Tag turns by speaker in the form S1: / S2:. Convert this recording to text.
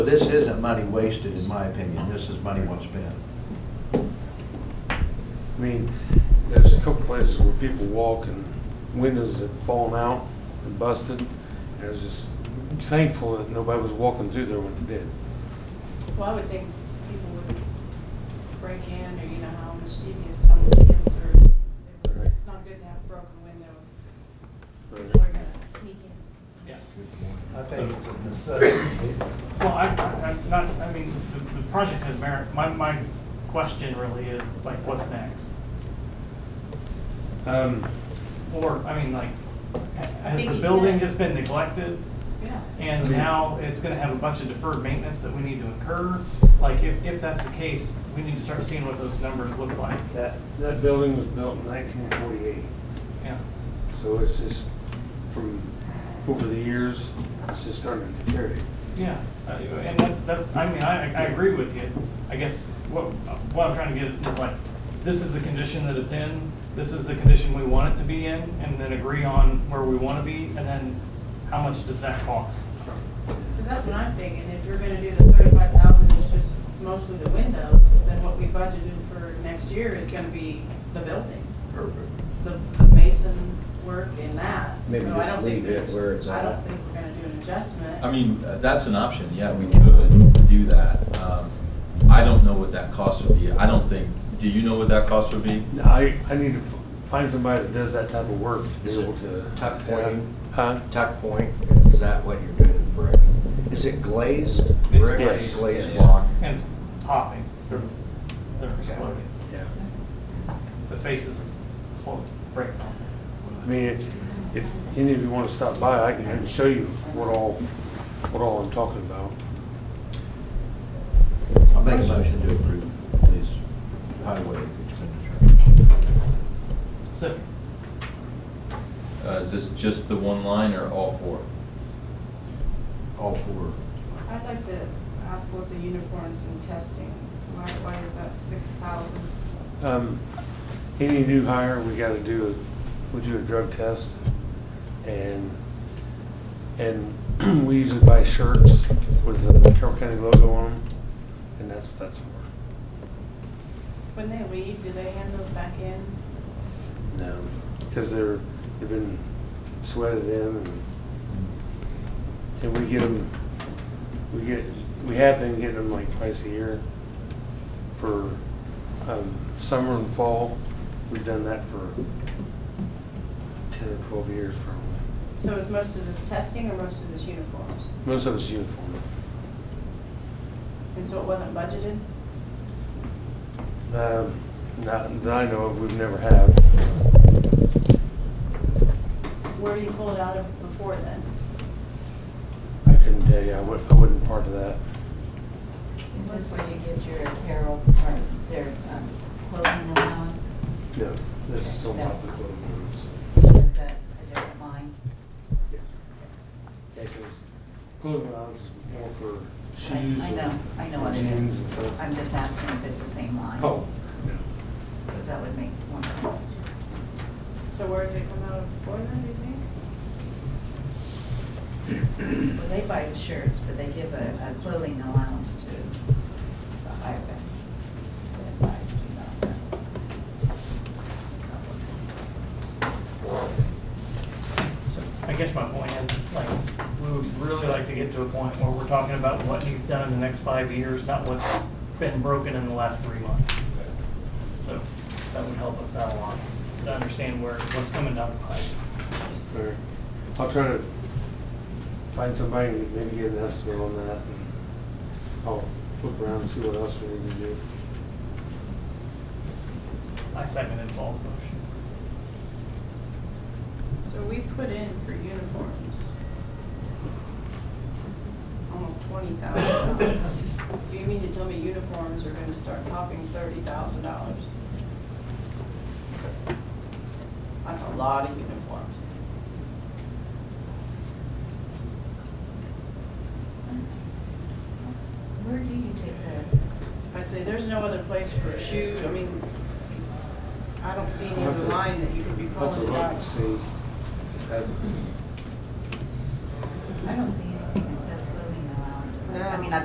S1: This isn't money wasted, in my opinion. This is money well spent.
S2: I mean, there's a couple places where people walk and windows had fallen out and busted. And I was just thankful that nobody was walking through there when they did.
S3: Well, I would think people would break in, or you know how mischievous some kids are. They were
S2: Right.
S3: not good to have a broken window.
S2: Right.
S3: People are gonna sneak in.
S4: Yeah.
S5: I think it's a necessity.
S4: Well, I, I- I'm not, I mean, the, the project has merit. My, my question really is like, what's next?
S2: Um,
S4: Or, I mean, like, ha- has
S3: Think
S4: the
S3: he
S4: building
S3: said-
S4: just been neglected?
S3: Yeah.
S4: And now it's gonna have a bunch of deferred maintenance that we need to incur? Like, if, if that's the case, we need to start seeing what those numbers look like.
S2: that, that building was built in nineteen forty-eight.
S4: Yeah.
S2: So it's just from, over the years, it's just starting to deteriorate.
S4: Yeah, uh, and that's, that's, I mean, I, I agree with you. I guess what, what I'm trying to get is like, this is the condition that it's in, this is the condition we want it to be in, and then agree on where we want to be, and then how much does that cost?
S3: Because that's what I'm thinking, if you're gonna do the thirty-five thousand, it's just mostly the windows, then what we budgeted for next year is gonna be the building,
S1: Perfect.
S3: the the mason work in that.
S6: Maybe
S3: So I
S6: just
S3: don't think
S6: leave it
S3: there's-
S6: where it's
S3: I don't
S6: at.
S3: think we're gonna do an adjustment.
S7: I mean, uh, that's an option, yeah, we could do that. Um, I don't know what that cost would be, I don't think, do you know what that cost would be?
S2: I, I need to f- find somebody that does that type of work to be able to.
S5: Tuck pointing.
S2: Huh?
S5: Tuck point, is that what you're doing with brick? Is it glazed brick or
S2: glazed,
S5: glazed
S2: yes.
S5: block?
S4: And it's popping, they're, they're exploding,
S2: Yeah.
S4: the faces are exploding, breaking off.
S2: I mean, if- if any of you want to stop by, I can I can show you what all, what all I'm talking about.
S1: I'll make a motion to approve this highway expenditure.
S4: So,
S7: Uh, Is this just the one line or all four?
S1: All four.
S3: I'd like to ask about the uniforms and testing, why, why is that six thousand?
S2: Um, Any new hire, we got to do, a we do a drug test, and, and we usually buy shirts with the Carroll County logo on them, and that's what that's for.
S3: When they leave, do they hand those back in?
S2: No. Because they're, they've been sweated in, and, and we get them, we get, we have been getting them like twice a year for um, summer and fall. We've done that for 10 or 12 years probably.
S3: So is most of this testing or most of this uniforms?
S2: Most of it's uniform.
S3: And so it wasn't budgeted?
S2: Um, Not that I know of, we've never had.
S3: Where do you pull it out of before then?
S2: I couldn't tell you, I wouldn't, I wasn't part of that.
S8: Is this where you get your apparel or their um, clothing allowance?
S2: No, this is still not the clothing.
S8: Or is that a different line?
S2: Because clothing allowance is more for
S8: I-
S2: shoes.
S8: I
S2: and-
S8: know, I know what it
S2: jeans and
S8: is.
S2: stuff.
S8: I'm just asking if it's the same line.
S2: Oh.
S8: Because that would make more sense.
S3: So where did it come out of before then, do you think?
S8: Well, they buy the shirts, but they give a a clothing allowance to the higher bid.
S4: So I guess my point is, like, we would really like to get to a point where we're talking about what needs done in the next five years, not what's been broken in the last three months. So that would help us out a lot, to understand where, what's coming down the pipe.
S2: Or I'll try to find somebody and maybe get an estimate on that. and I'll look around and see what else we need to do.
S4: I seconded Paul's motion.
S3: So we put in for uniforms. Almost twenty thousand dollars. So you mean to tell me uniforms are gonna start topping thirty thousand dollars? That's a lot of uniforms.
S8: Where do you take the
S3: I say, there's no other place for a shoe, I mean, I don't see any other line that you could be
S2: I'll have to
S3: pulling it
S2: look
S3: out.
S2: and see.
S8: I don't see anything that says clothing allowance. I mean,
S3: No.
S8: I